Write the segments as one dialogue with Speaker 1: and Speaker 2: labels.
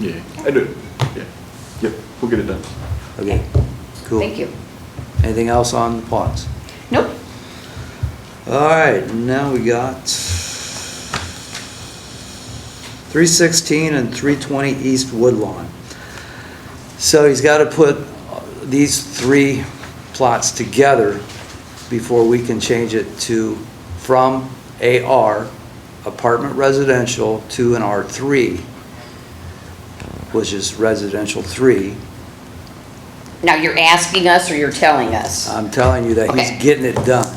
Speaker 1: Yeah, I do. Yeah, yep, we'll get it done.
Speaker 2: Okay, cool.
Speaker 3: Thank you.
Speaker 2: Anything else on the ponds?
Speaker 3: Nope.
Speaker 2: All right, now we got three sixteen and three twenty East Woodlawn. So he's gotta put these three plots together before we can change it to, from AR, apartment residential, to an R three, which is residential three.
Speaker 3: Now, you're asking us or you're telling us?
Speaker 2: I'm telling you that
Speaker 3: Okay.
Speaker 2: he's getting it done.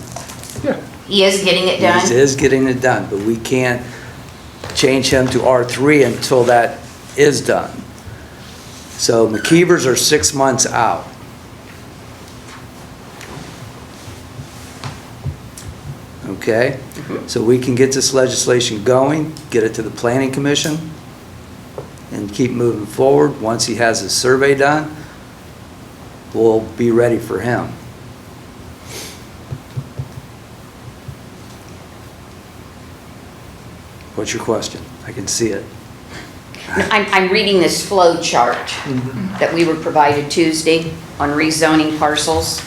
Speaker 1: Yeah.
Speaker 3: He is getting it
Speaker 2: He
Speaker 3: done?
Speaker 2: is getting it done, but we can't change him to R3 until that is done. So McKeever's are six months out. Okay? So we can get this legislation going, get it to the planning commission, and keep moving forward. Once he has his survey done, we'll be ready for him. What's your question? I can see it.
Speaker 3: I'm, I'm reading this flow chart that we were provided Tuesday on rezoning parcels.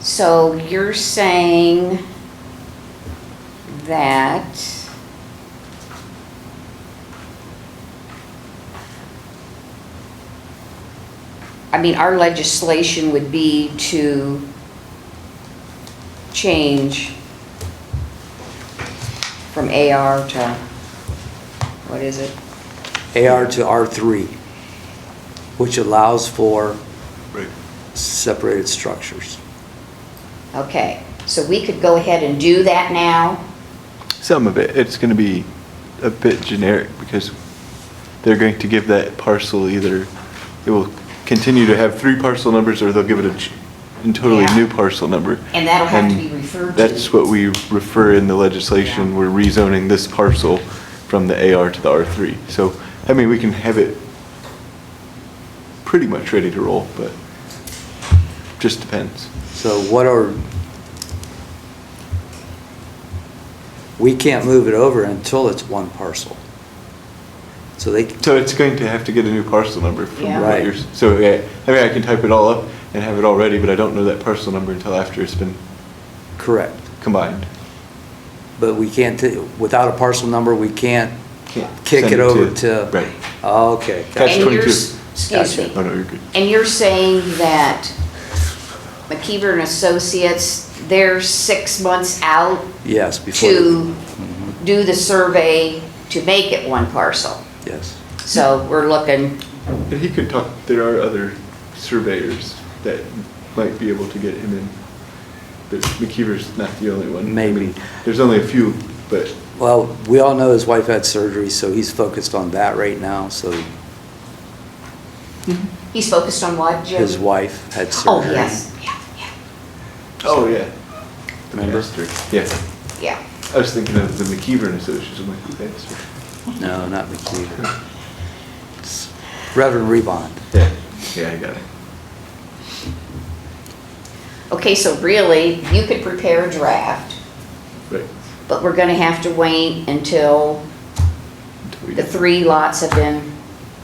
Speaker 3: So you're saying that I mean, our legislation would be to change from AR to, what is it?
Speaker 2: AR to R3, which allows for
Speaker 1: Right.
Speaker 2: separated structures.
Speaker 3: Okay, so we could go ahead and do that now?
Speaker 1: Some of it, it's gonna be a bit generic because they're going to give that parcel either, it will continue to have three parcel numbers or they'll give it a ch- a totally
Speaker 3: Yeah.
Speaker 1: new parcel number.
Speaker 3: And that'll have to
Speaker 1: And
Speaker 3: be referred to.
Speaker 1: That's what we refer in the legislation,
Speaker 3: Yeah.
Speaker 1: we're rezoning this parcel from the AR to the R3. So, I mean, we can have it pretty much ready to roll, but just depends.
Speaker 2: So what are, we can't move it over until it's one parcel. So they,
Speaker 1: So it's going to have to get a new parcel number from
Speaker 3: Yeah.
Speaker 1: what
Speaker 2: Right.
Speaker 1: you're, so, yeah, I mean, I can type it all up and have it all ready, but I don't know that parcel number until after it's been
Speaker 2: correct,
Speaker 1: combined.
Speaker 2: but we can't, t- without a parcel number, we can't
Speaker 1: Can't
Speaker 2: kick
Speaker 1: send
Speaker 2: it
Speaker 1: it
Speaker 2: over
Speaker 1: to-
Speaker 2: to.
Speaker 1: right.
Speaker 2: Oh, Okay.
Speaker 1: Catch
Speaker 3: And you're
Speaker 1: 22.
Speaker 3: s- Excuse
Speaker 2: Gotcha.
Speaker 3: me.
Speaker 1: Oh, no, you're good.
Speaker 3: And you're saying that McKeever and Associates, they're six months out
Speaker 2: Yes, before.
Speaker 3: to do the survey to make it one parcel?
Speaker 2: Yes.
Speaker 3: So we're looking,
Speaker 1: And he could talk, there are other surveyors that might be able to get him in, but McKeever's not the only one. I
Speaker 2: Maybe.
Speaker 1: mean, There's only a few, but
Speaker 2: Well, we all know his wife had surgery, so he's focused on that right now, so
Speaker 3: he's focused on what, Jim?
Speaker 2: his wife had
Speaker 3: Oh,
Speaker 2: surgery.
Speaker 3: yes, yeah, yeah,
Speaker 1: Oh, yeah. The
Speaker 2: Remember?
Speaker 1: pastor. Yeah.
Speaker 3: yeah.
Speaker 1: I was thinking of the McKeever and Associates. I'm like, who that's for?
Speaker 2: No, not McKeever. It's Reverend Rebond.
Speaker 1: Yeah. Yeah, I got it.
Speaker 3: Okay, so really, you could prepare a draft,
Speaker 1: Right.
Speaker 3: but we're gonna have to wait until
Speaker 1: Until we
Speaker 3: the
Speaker 1: get-
Speaker 3: three lots have been,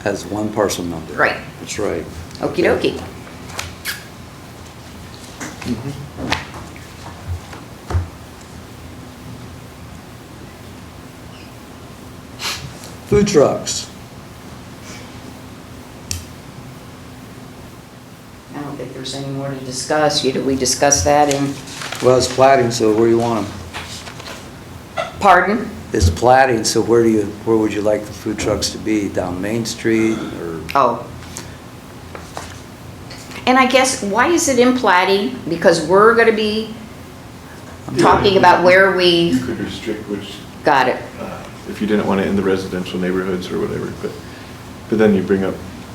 Speaker 2: Has one parcel number.
Speaker 3: right,
Speaker 2: That's right.
Speaker 3: okey dokey.
Speaker 2: Food trucks.
Speaker 3: I don't think there's any more to discuss, You- did we discuss that in,
Speaker 2: Well, it's plating, so where do you want them?
Speaker 3: pardon?
Speaker 2: It's plating, so where do you, where would you like the food trucks to be? Down Main Street or?
Speaker 3: Oh. And I guess, why is it in plating? Because we're gonna be talking about where we
Speaker 1: You could restrict which,
Speaker 3: got it.
Speaker 1: uh, if you didn't want it in the residential neighborhoods or whatever, but, but then you bring up,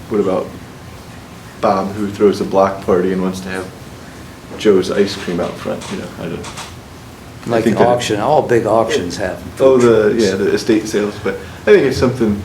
Speaker 1: what about Bob who throws a block party and wants to have Joe's ice cream out front, you know, I don't.
Speaker 2: Like
Speaker 1: think
Speaker 2: the
Speaker 1: that-
Speaker 2: auction, all big auctions have.
Speaker 1: Oh,
Speaker 2: food
Speaker 1: the,
Speaker 2: trucks.
Speaker 1: yeah, the estate sales, but I think it's something